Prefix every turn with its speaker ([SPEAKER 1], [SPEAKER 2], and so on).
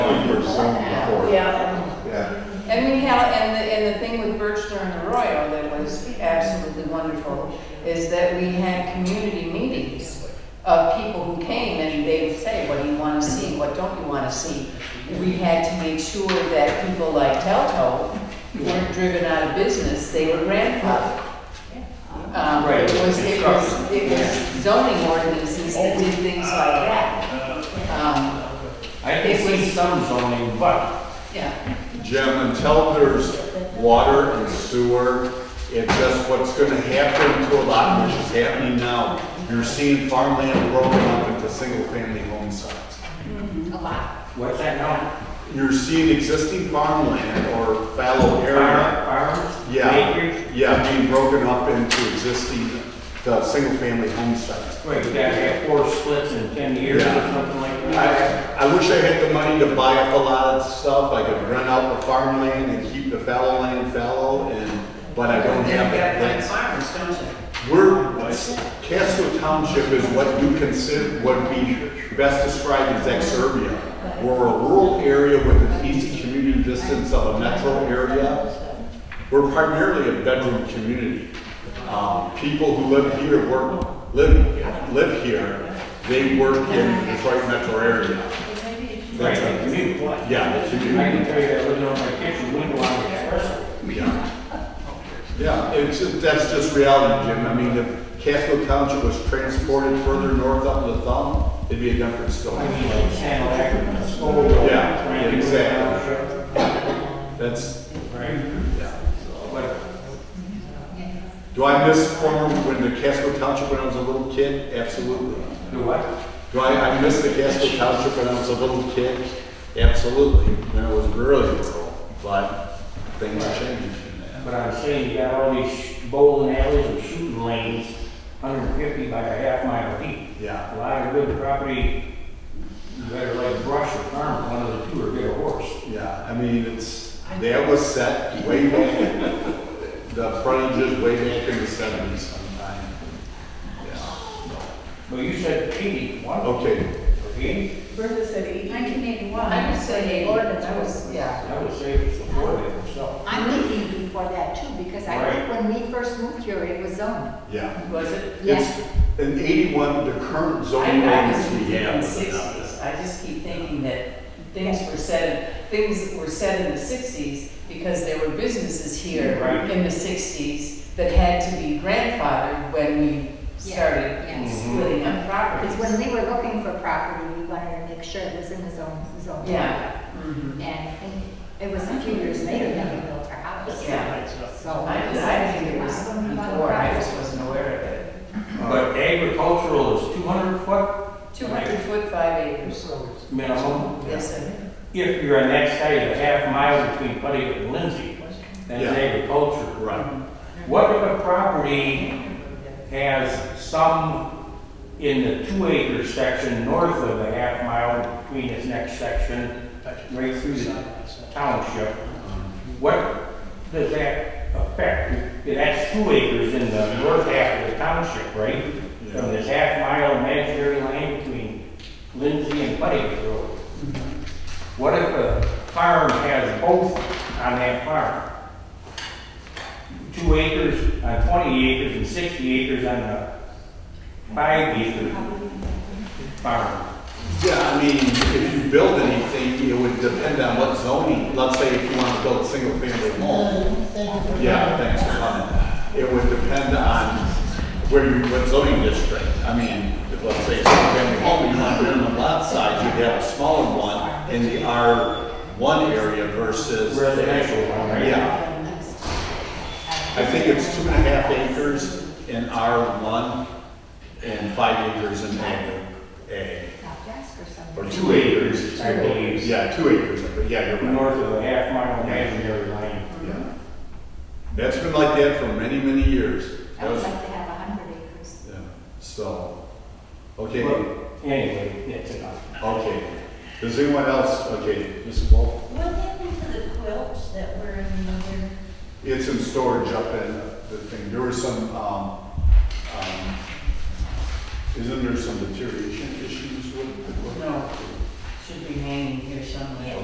[SPEAKER 1] some before.
[SPEAKER 2] Yeah.
[SPEAKER 1] Yeah.
[SPEAKER 3] And we have, and the, and the thing with Birchner and Arroyo that was absolutely wonderful is that we had community meetings of people who came and they would say, what do you want to see, what don't you want to see? We had to make sure that people like Telto weren't driven out of business, they were grandfathered. Um,
[SPEAKER 4] Right.
[SPEAKER 3] it was, it was, it was zoning ordinances that did things like that. Um,
[SPEAKER 4] I can see some zoning, but
[SPEAKER 3] yeah,
[SPEAKER 1] Jim, until there's water and sewer, it's just what's gonna happen to a lot, which is happening now. You're seeing farmland broken up into single-family home sites.
[SPEAKER 4] what's that now?
[SPEAKER 1] You're seeing existing farmland or fallow area,
[SPEAKER 4] Farm, farms?
[SPEAKER 1] Yeah.
[SPEAKER 4] Acres?
[SPEAKER 1] yeah, being broken up into existing, the single-family home sites.
[SPEAKER 4] Wait, you gotta have four splits in ten years or
[SPEAKER 1] Yeah.
[SPEAKER 4] something like that?
[SPEAKER 1] I, I wish I had the money to buy up a lot of stuff, I could rent out the farmland and keep the fallow land fallow, and, but I don't have that. That's-
[SPEAKER 3] farmers, don't you?
[SPEAKER 1] We're, Casco Township is what you consider, what we best describe as exurbia. We're a rural area with an easy commuting distance of a metro area. We're primarily a bedroom community. Um, People who live here work, live, live here, they work in Detroit metro area.
[SPEAKER 4] Right,
[SPEAKER 1] That's
[SPEAKER 4] the
[SPEAKER 1] a-
[SPEAKER 4] community one.
[SPEAKER 1] Yeah, the
[SPEAKER 4] I can
[SPEAKER 1] community,
[SPEAKER 4] tell you, I lived on my kitchen window on the expressway.
[SPEAKER 1] yeah. Yeah, it's, just- that's just reality, Jim. I mean, if Casco Township was transported further north up the thumb, it'd be a different story.
[SPEAKER 4] I mean, like San Lac, School.
[SPEAKER 1] Yeah, exactly. That's,
[SPEAKER 4] Right,
[SPEAKER 1] yeah.
[SPEAKER 4] but
[SPEAKER 1] Do I miss former, when the Casco Township when I was a little kid? Absolutely.
[SPEAKER 4] the what?
[SPEAKER 1] Do I, I miss the Casco Township when I was a little kid? Absolutely. When I was really little, but things change.
[SPEAKER 4] But I'm saying you got all these bowling alleys and shooting lanes, hundred fifty by a half mile deep.
[SPEAKER 1] Yeah.
[SPEAKER 4] A lot of good property, you better like brush or farm, one of the two or get a horse.
[SPEAKER 1] Yeah, I mean, it's, that was set way back, the frontage is way back in the seventies sometime. Yeah.
[SPEAKER 4] But you said eighty, one,
[SPEAKER 1] Okay,
[SPEAKER 4] okay?
[SPEAKER 2] Bertha said eighty.
[SPEAKER 5] Nineteen eighty-one.
[SPEAKER 3] I would say,
[SPEAKER 5] Ordinance
[SPEAKER 3] I
[SPEAKER 5] was.
[SPEAKER 3] was, yeah.
[SPEAKER 4] I would say it's before that, so.
[SPEAKER 5] I'm thinking before that too, because I think when we first moved here, it was zoned.
[SPEAKER 1] yeah.
[SPEAKER 3] Was it?
[SPEAKER 1] It's, in eighty-one, the current zoning
[SPEAKER 3] I, I
[SPEAKER 1] ordinance
[SPEAKER 3] was
[SPEAKER 1] we
[SPEAKER 3] in the
[SPEAKER 1] have.
[SPEAKER 3] sixties, I just keep thinking that things were said, things were said in the sixties because there were businesses here
[SPEAKER 4] Right.
[SPEAKER 3] in the sixties that had to be grandfathered when we
[SPEAKER 5] Yeah,
[SPEAKER 3] started
[SPEAKER 5] yes.
[SPEAKER 1] Mm-hmm.
[SPEAKER 3] splitting up
[SPEAKER 5] Because when
[SPEAKER 3] properties.
[SPEAKER 5] we were looking for property, we wanted to make sure it was in the zone, zone.
[SPEAKER 3] Yeah. mhm.
[SPEAKER 5] And I think it was a few years later that we built our house.
[SPEAKER 3] Yeah.
[SPEAKER 5] So.
[SPEAKER 3] I, I think it was before, I just wasn't aware of it.
[SPEAKER 4] But agricultural is two hundred foot
[SPEAKER 3] Two hundred foot, five acres,
[SPEAKER 4] minimum.
[SPEAKER 3] yes, and,
[SPEAKER 4] If you're on that side of a half mile between Putty and Lindsay, then it's
[SPEAKER 1] Yeah.
[SPEAKER 4] agriculture.
[SPEAKER 1] Right,
[SPEAKER 4] What if a property has some in the two acre section north of the half mile between its next section, right through the township? What does that affect? That's two acres in the north half of the township, right? From this half mile imaginary line between Lindsay and Putty Road. What if a farm has both on that farm? two acres, on twenty acres and sixty acres on a five acre farm.
[SPEAKER 1] yeah, I mean, if you build anything, it would depend on what zoning, let's say if you want to build a single-family home. Yeah, thanks for coming. It would depend on where you, what zoning district, I mean, if let's say it's a single-family home, you want to build on the lot size, you'd have a smaller one in the R one area versus.
[SPEAKER 4] Residential one, right?
[SPEAKER 1] Yeah, I think it's two and a half acres in R one and five acres in A. A.
[SPEAKER 5] Desk or
[SPEAKER 1] Or
[SPEAKER 5] something.
[SPEAKER 1] two acres,
[SPEAKER 4] I believe.
[SPEAKER 1] Yeah, two acres, but yeah, you're right.
[SPEAKER 4] North of a half mile imaginary line.
[SPEAKER 1] Yeah. That's been like that for many, many years.
[SPEAKER 5] I
[SPEAKER 1] That
[SPEAKER 5] would
[SPEAKER 1] was,
[SPEAKER 5] like to have a hundred acres.
[SPEAKER 1] yeah, so, okay,
[SPEAKER 4] But anyway, that's enough.
[SPEAKER 1] okay. Does anyone else, okay, Mrs. Wolf?
[SPEAKER 6] What happened to the quilts that were in there?
[SPEAKER 1] It's in storage up in the thing. There was some, um, um, isn't there some deterioration issues with the?
[SPEAKER 3] no, should be hanging here somewhere.